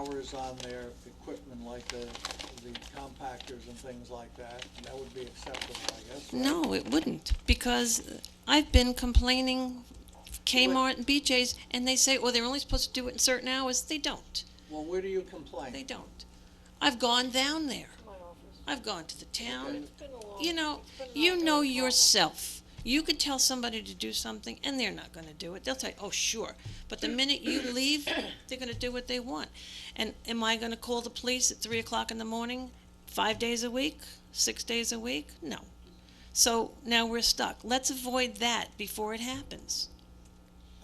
meters on their equipment like the, the compactors and things like that, that would be acceptable, I guess. right? No, it wouldn't, because I've been complaining Kmart and BJ's, and they say, well, they're only supposed to do it in certain hours. They don't. Well, where do you They complain? don't. I've gone down there. I've gone to the town. You know, you know yourself. You could tell somebody to do something, and they're not gonna do it. They'll tell you, oh, sure. But the minute you leave, they're gonna do what they want. And am I gonna call the police at three o'clock in the morning, five days a week, six days a week? No. So now we're stuck. Let's avoid that before it happens.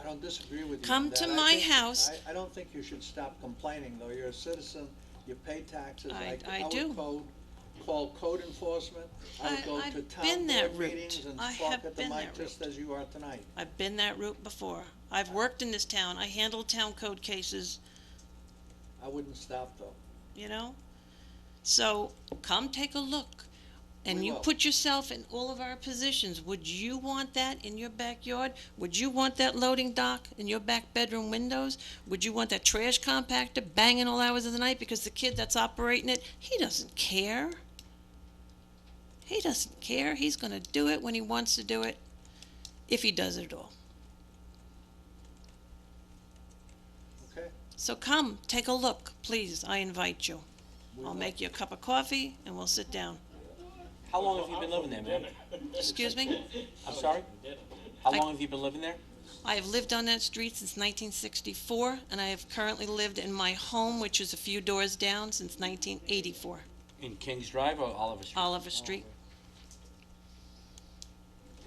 I don't disagree with you. on Come that. to I my think- house. I, I don't think you should stop complaining, though. You're a citizen, you pay taxes. I- I would do. call- Call code enforcement. I would I- go I've to been town that board route. meetings and I talk have at the been mic that just route. as you are tonight. I've been that route before. I've worked in this town. I handled town code cases. I wouldn't stop, though. you know? So come take a look. And We you will. put yourself in all of our positions. Would you want that in your backyard? Would you want that loading dock in your back bedroom windows? Would you want that trash compactor banging all hours of the night because the kid that's operating it, he doesn't care. He doesn't care. He's going to do it when he wants to do it, if he does it at all. Okay? So come, take a look, please. I invite you. We I'll will. make you a cup of coffee and we'll sit down. How long have you been living there, man? Excuse me? I'm sorry? How I- long have you been living there? I have lived on that street since 1964, and I have currently lived in my home, which is a few doors down, since 1984, In Kings Drive or Oliver Street? Oliver Street.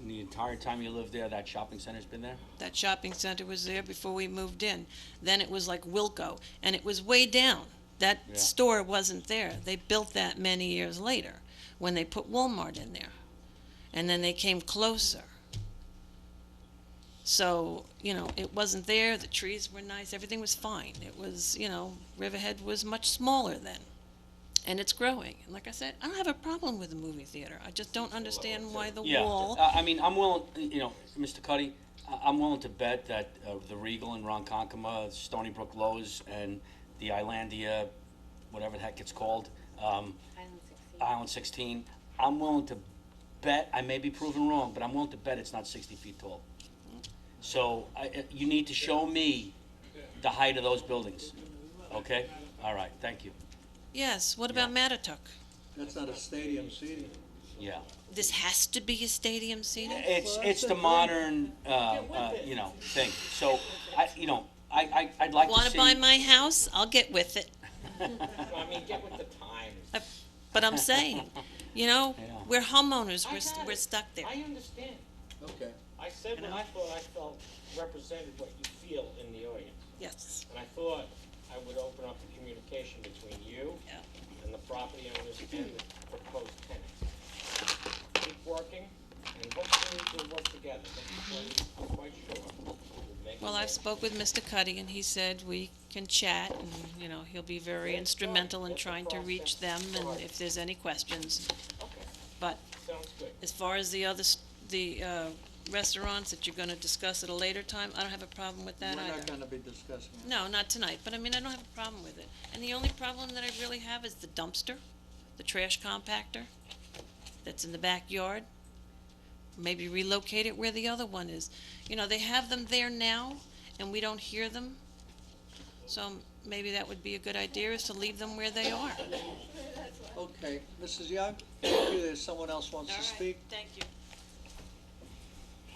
In the entire time you lived there, that shopping center's been there? That shopping center was there before we moved in. Then it was like Wilco, and it was way down. That Yeah. store wasn't there. They built that many years later when they put Walmart in there. And then they came closer. So, you know, it wasn't there. The trees were nice. Everything was fine. It was, you know, Riverhead was much smaller then. And it's growing. And like I said, I don't have a problem with the movie theater. I just don't understand why the Yeah, Uh, wall. I I mean, I'm willing, you know, Mr. Cuddy, I- I'm willing to bet that uh, the Regal and Ronkonkoma, Stony Brook Lowe's, and the Islandia, whatever the heck it's called, um, Island 16, I'm willing to bet, I may be proven wrong, but I'm willing to bet it's not 60 feet tall. So I- I- you need to show me the height of those buildings, okay? All right, thank you. Yes, what about Matatuck? That's not a stadium seating. Yeah. This has to be a stadium seating? It's, it's the modern, uh, uh, you know, thing. So, I, you know, I, I, I'd like to see. Want to buy my house? I'll get with it. I mean, get with the times. But I'm saying, you know, Yeah. we're homeowners, we're, s- I got we're it. stuck there. I understand. Okay. I said what I thought I felt represented what you feel in the audience. Yes. And I thought I would open up the communication between you Yeah. and the property owners and the proposed tenants. Keep working and hopefully we'll work together. That's what I'm quite sure. we'll make it Mm-hmm. Well, I've work. spoke with Mr. Cuddy and he said we can chat and, you know, he'll be very instrumental in trying to reach them and if there's any questions. Okay, But sounds good. as far as the other, s- the, uh, restaurants that you're gonna discuss at a later time, I don't have a problem with We're that either. not gonna be discussing it. No, not tonight, but I mean, I don't have a problem with it. And the only problem that I really have is the dumpster, the trash compactor that's in the backyard. Maybe relocate it where the other one is. You know, they have them there now and we don't hear them. So maybe that would be a good idea is to leave them where they are. Okay, Mrs. Young, thank you. There's someone else wants to speak? thank you.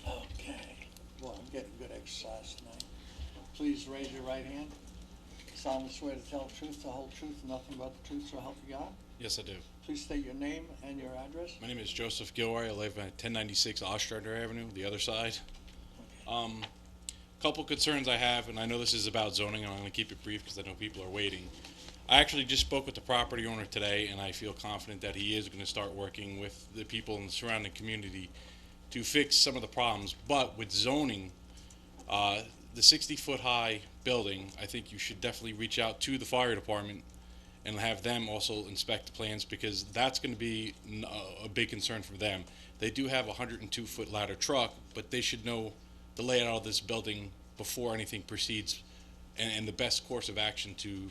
Okay. Well, I'm getting good exercise tonight. Please raise your right hand. Solemnly swear to tell the truth, the whole truth, and nothing but the truth, so help you God. Yes, I do. Please state your name and your address. My name is Joseph Gilroy. I live at 1096 Ostrander Avenue, the other side. Um, couple concerns I have, and I know this is about zoning, and I'm going to keep it brief because I know people are waiting. I actually just spoke with the property owner today, and I feel confident that he is going to start working with the people in the surrounding community to fix some of the problems. But with zoning, uh, the 60 foot high building, I think you should definitely reach out to the fire department and have them also inspect the plans because that's going to be n- uh, a- a big concern for them. They do have a 102 foot ladder truck, but they should know the layout of this building before anything proceeds and, and the best course of action to